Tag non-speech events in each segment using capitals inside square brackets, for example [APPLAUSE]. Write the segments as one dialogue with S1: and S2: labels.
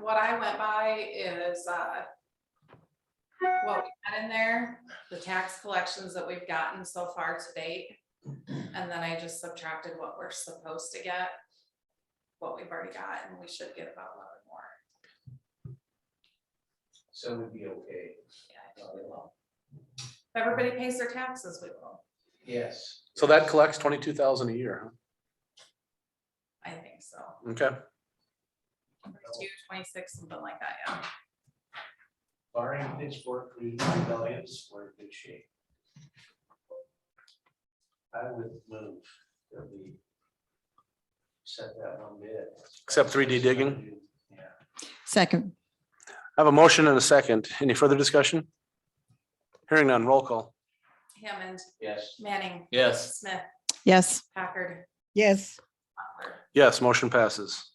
S1: what I went by is, uh, what we had in there, the tax collections that we've gotten so far to date. And then I just subtracted what we're supposed to get, what we've already got, and we should get about eleven more.
S2: So we'd be okay.
S1: Yeah. If everybody pays their taxes, we will,
S2: Yes.
S3: So that collects twenty-two thousand a year,
S1: I think so.
S3: huh? okay?
S1: Two, twenty-six, something like that, yeah.
S2: Barring pitchfork rebellions, we're in good shape. I would move that we set that one bid.
S3: Except 3D digging?
S2: Yeah.
S4: Second,
S3: I have a motion and a second. Any further discussion? Hearing none, roll call.
S1: Hammond,
S2: Yes.
S1: Manning,
S5: Yes.
S1: Smith,
S4: yes.
S1: Packard,
S4: Yes.
S1: Butler.
S3: Yes, motion passes.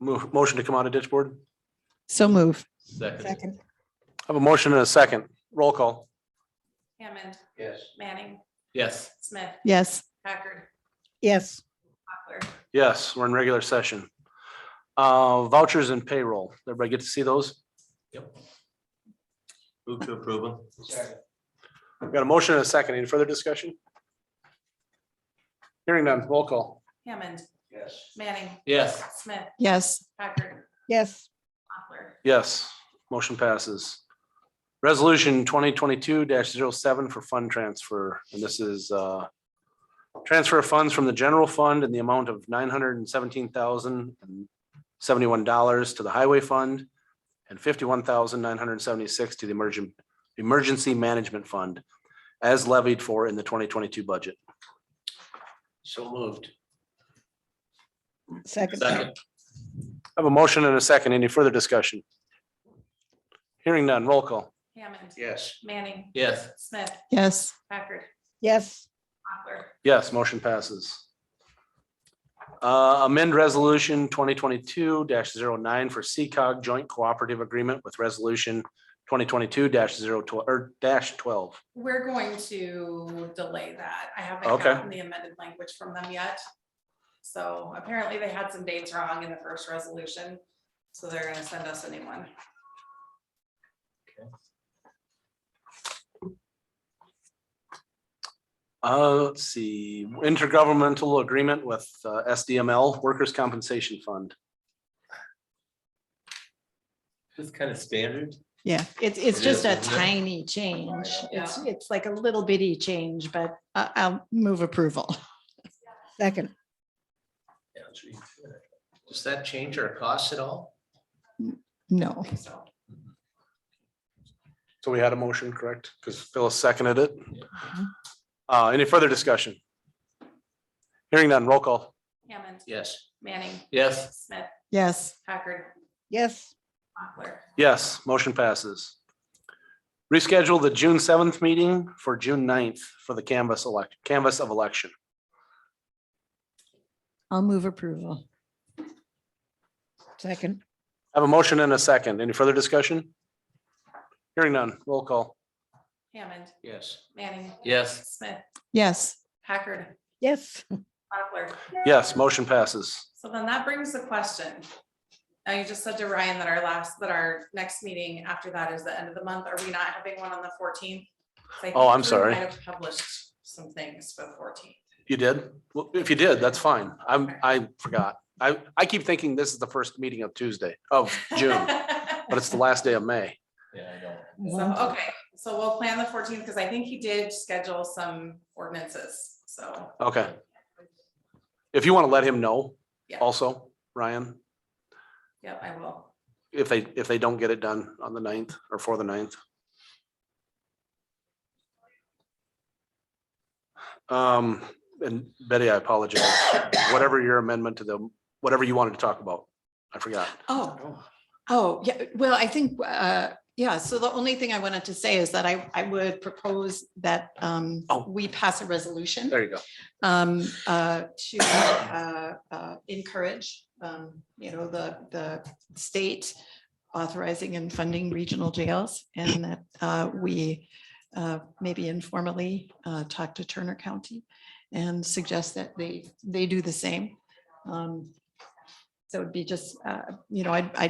S3: Mo- Motion to come out of ditch board.
S4: So move.
S5: Second.
S3: I have a motion and a second. Roll call.
S1: Hammond,
S2: Yes.
S1: Manning,
S5: Yes.
S1: Smith,
S4: Yes.
S1: Packard,
S4: Yes.
S1: Butler.
S3: Yes, we're in regular session. Uh, Vouchers and payroll. Everybody get to see those?
S5: Move to approve them.
S2: Second.
S3: We've Got a motion and a second. Any further discussion? Hearing none, roll call.
S1: Hammond,
S2: Yes.
S1: Manning,
S5: Yes.
S1: Smith,
S4: Yes.
S1: Packard,
S4: Yes.
S1: Butler.
S3: Yes, motion passes. Resolution twenty twenty-two 7 for fund transfer, and this is uh, transfer of funds from the general fund in the amount of nine hundred and seventeen thousand and seventy-one dollars to the highway fund and fifty-one thousand nine hundred and seventy-six to the emergent, emergency management fund as levied for in the twenty twenty-two budget.
S2: So moved.
S4: Second.
S5: Second.
S3: I have a motion and a second. Any further discussion? Hearing none, roll call.
S1: Hammond,
S2: Yes.
S1: Manning,
S5: Yes.
S1: Smith,
S4: Yes.
S1: Packard,
S4: Yes.
S1: Butler.
S3: Yes, motion passes. Uh, Amend resolution twenty twenty-two 9 for CCOG Joint Cooperative Agreement with resolution twenty twenty-two 12 or er, dash twelve.
S1: We're going to delay that. I haven't
S3: Okay.
S1: gotten the amended language from them yet. So apparently they had some dates wrong in the first resolution, so they're gonna send us a new one.
S3: Uh, let's see, intergovernmental agreement with uh, SDML Workers' Compensation Fund.
S5: Just kind of standard.
S4: Yeah, it's, it's
S5: It
S4: just
S5: is,
S4: a
S5: isn't it?
S4: tiny change. It's, it's like a little bitty change, but I, I'll move approval. Second.
S2: Yeah, let's read through it. Does that change our costs at all?
S1: I
S4: No.
S1: think so.
S3: So we had a motion, correct? Because Phyllis seconded it. Uh, any further discussion? Hearing none, roll call.
S1: Hammond,
S2: Yes.
S1: Manning,
S5: Yes.
S1: Smith,
S4: Yes.
S1: Packard,
S4: Yes.
S1: Butler.
S3: Yes, motion passes. Reschedule the June seventh meeting for June 9th for the canvas elect, canvas of election.
S4: I'll move approval. Second.
S3: I Have a motion and a second. Any further discussion? Hearing none, roll call.
S1: Hammond,
S2: Yes.
S1: Manning,
S5: Yes.
S1: Smith,
S4: Yes.
S1: Packard,
S4: Yes.
S1: Butler.
S3: Yes, motion passes.
S1: So then that brings the question. Now, you just said to Ryan that our last, that our next meeting after that is the end of the month. Are we not having one on the fourteenth?
S3: Oh, I'm sorry.
S1: I have published some things for the fourteenth.
S3: You did? Well, if you did, that's fine. I'm, I forgot. I, I keep thinking this is the first meeting of Tuesday of [LAUGHS] June, but it's the last day of May.
S5: Yeah, I know.
S1: So, okay, so we'll plan the fourteenth because I think he did schedule some ordinances, so.
S3: Okay. If you want to let him know
S1: Yeah.
S3: also, Ryan,
S1: Yep, I will.
S3: if they, if they don't get it done on the 9th or for the 9th. Um, and Betty, I apologize. Whatever your amendment to the, whatever you wanted to talk about, I forgot.
S4: Oh, oh, yeah, well, I think, uh, yeah, so the only thing I wanted to say is that I, I would propose that, um,
S3: Oh.
S4: we pass a resolution,
S3: There you go.
S4: um, uh, to, uh, uh, encourage, um, you know, the, the state authorizing and funding regional jails and that, uh, we, uh, maybe informally, uh, talk to Turner County and suggest that they, they do the same. Um, So it'd be just, uh, you know, I, I